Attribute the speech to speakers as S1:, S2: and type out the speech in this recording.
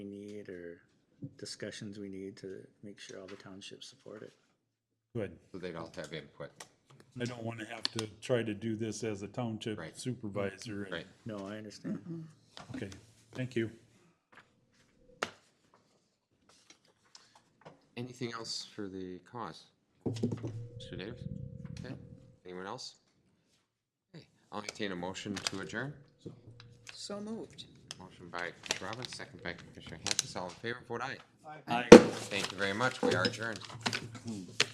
S1: discussions we need to make sure all the townships support it.
S2: Good.
S3: So they'd all have input.
S2: I don't want to have to try to do this as a township
S3: Right.
S2: supervisor. and-
S3: Right.
S1: No, I understand.
S2: Okay, thank you.
S3: Anything else for the cause? Mr. Davis? Okay. Anyone else? Okay. I'll entertain a motion to adjourn.
S4: So moved.
S3: Motion by Commissioner Robbins, second by Commissioner Hampus. All in favor, vote aye.
S1: Aye.
S3: Thank you very much. We are adjourned.